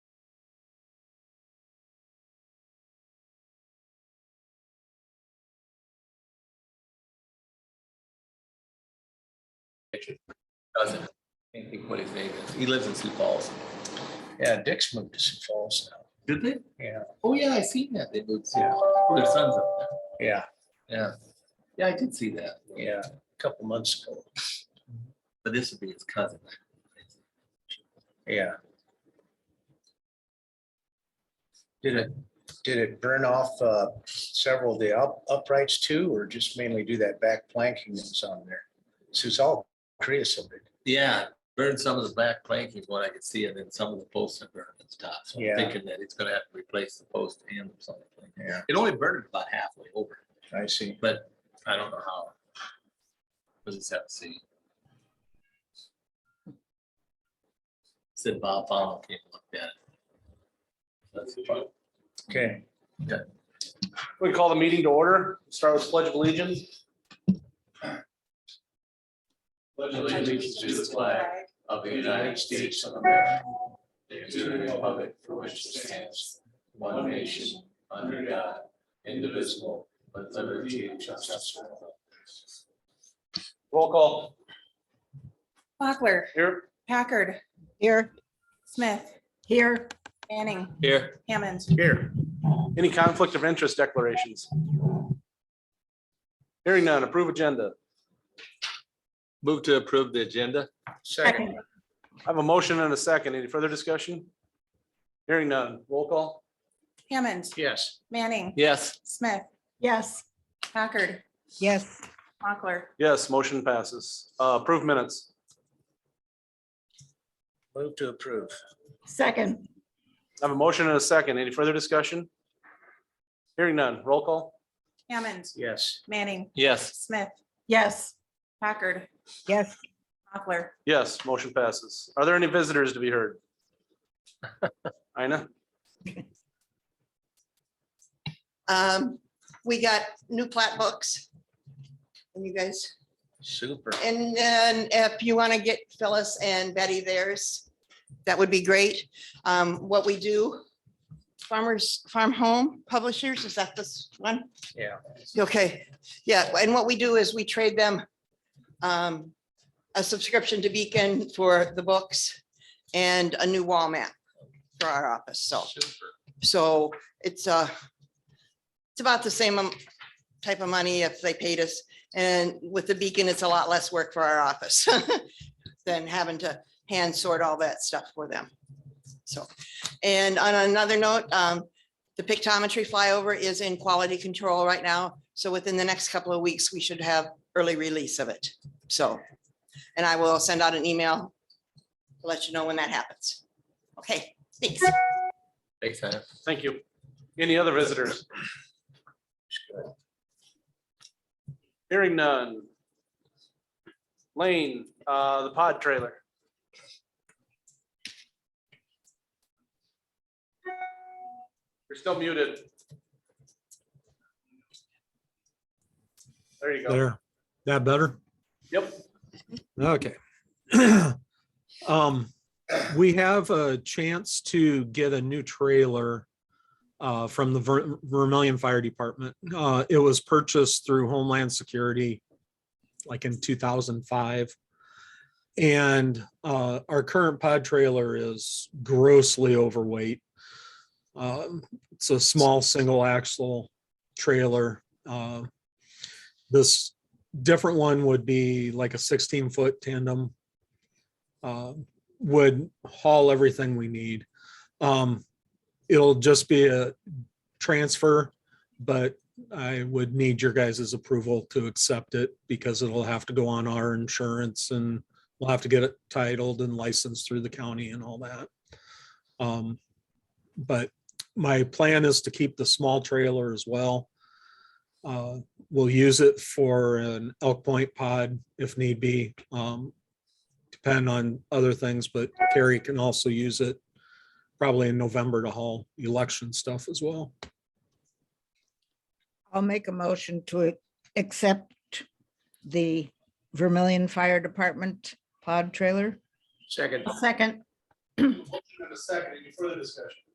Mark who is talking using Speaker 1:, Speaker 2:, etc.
Speaker 1: vacation.
Speaker 2: Doesn't. Can't think what his name is. He lives in Sioux Falls.
Speaker 3: Yeah, Dick's moved to Sioux Falls now.
Speaker 2: Did they?
Speaker 3: Yeah,
Speaker 2: Oh, yeah, I seen that. They moved.
Speaker 3: Yeah.
Speaker 2: Their sons up there.
Speaker 3: yeah,
Speaker 2: Yeah. Yeah, I did see that.
Speaker 3: yeah, a couple months ago.
Speaker 2: But this would be his cousin.
Speaker 3: Yeah. Did it, did it burn off uh, several of the up- uprights too, or just mainly do that back planking that's on there? So it's all creosoted.
Speaker 2: Yeah, burned some of the back planking, what I could see, and then some of the posts are burned and stuff. So I'm
Speaker 3: Yeah.
Speaker 2: thinking that it's gonna have to replace the post and some of the planking.
Speaker 3: Yeah,
Speaker 2: It only burned about halfway over,
Speaker 3: I see.
Speaker 2: but I don't know how. We'll just have to see. Said Bob Fowler came and looked at it. That's the part.
Speaker 3: Okay,
Speaker 1: We call the meeting to order. Start with pledge of allegiance.
Speaker 4: pledge allegiance to the flag of the United States of America, and to the republic for which it stands, one nation, under God, indivisible, with liberty and justice for all.
Speaker 1: Roll call
Speaker 5: Mochler,
Speaker 1: here.
Speaker 5: Packard,
Speaker 6: Here.
Speaker 5: Smith,
Speaker 6: Here.
Speaker 5: Manning,
Speaker 2: Here.
Speaker 5: Hammond.
Speaker 1: Here. Any conflict of interest declarations? Hearing none. Approve agenda.
Speaker 2: Move to approve the agenda.
Speaker 3: second,
Speaker 1: I have a motion and a second. Any further discussion? Hearing none. Roll call.
Speaker 5: Hammond,
Speaker 3: yes,
Speaker 5: Manning,
Speaker 2: Yes.
Speaker 5: Smith,
Speaker 6: Yes.
Speaker 5: Packard,
Speaker 6: Yes.
Speaker 5: Mochler,
Speaker 1: Yes, motion passes. Uh, Approve minutes.
Speaker 3: move to approve.
Speaker 6: Second.
Speaker 1: I have a motion and a second. Any further discussion? Hearing none. Roll call.
Speaker 5: Hammond,
Speaker 3: Yes,
Speaker 5: Manning,
Speaker 2: Yes.
Speaker 5: Smith,
Speaker 6: Yes.
Speaker 5: Packard,
Speaker 6: Yes.
Speaker 5: Mochler,
Speaker 1: Yes, motion passes. Are there any visitors to be heard? Ina?
Speaker 7: Um, we got new plat books. And you guys,
Speaker 3: super.
Speaker 7: and then if you want to get Phyllis and Betty theirs, that would be great. Um, what we do, farmers, farm home publishers, is that this one?
Speaker 3: Yeah.
Speaker 7: Okay, yeah, and what we do is we trade them um, a subscription to Beacon for the books and a new wall map for our office, so. So it's uh it's about the same am- type of money if they paid us. And with the beacon, it's a lot less work for our office than having to hand sort all that stuff for them. So, and on another note, um, the pictometry flyover is in quality control right now. So within the next couple of weeks, we should have early release of it. So, and I will send out an email to let you know when that happens. Okay, thanks.
Speaker 2: Thanks, Hannah.
Speaker 1: Thank you. Any other visitors? Hearing none. Lane, uh, the pod trailer. You're still muted. There you go.
Speaker 8: There, that better?
Speaker 1: Yep.
Speaker 8: Okay. Um, we have a chance to get a new trailer uh, from the Ver- Vermillion Fire Department. Uh, it was purchased through Homeland Security like in two thousand five. And uh, our current pod trailer is grossly overweight. Um, it's a small single axle trailer. Uh, this different one would be like a 16 foot tandem uh, would haul everything we need um, it'll just be a transfer but i would need your guys' approval to accept it because it'll have to go on our insurance and we'll have to get it titled and licensed through the county and all that um, but my plan is to keep the small trailer as well uh, we'll use it for an elk point pod if need be. Um, depend on other things, but Carrie can also use it probably in November to haul election stuff as well.
Speaker 6: I'll make a motion to accept the Vermillion Fire Department pod trailer.
Speaker 3: Second,
Speaker 6: Second.
Speaker 1: Motion and a second. Any further discussion?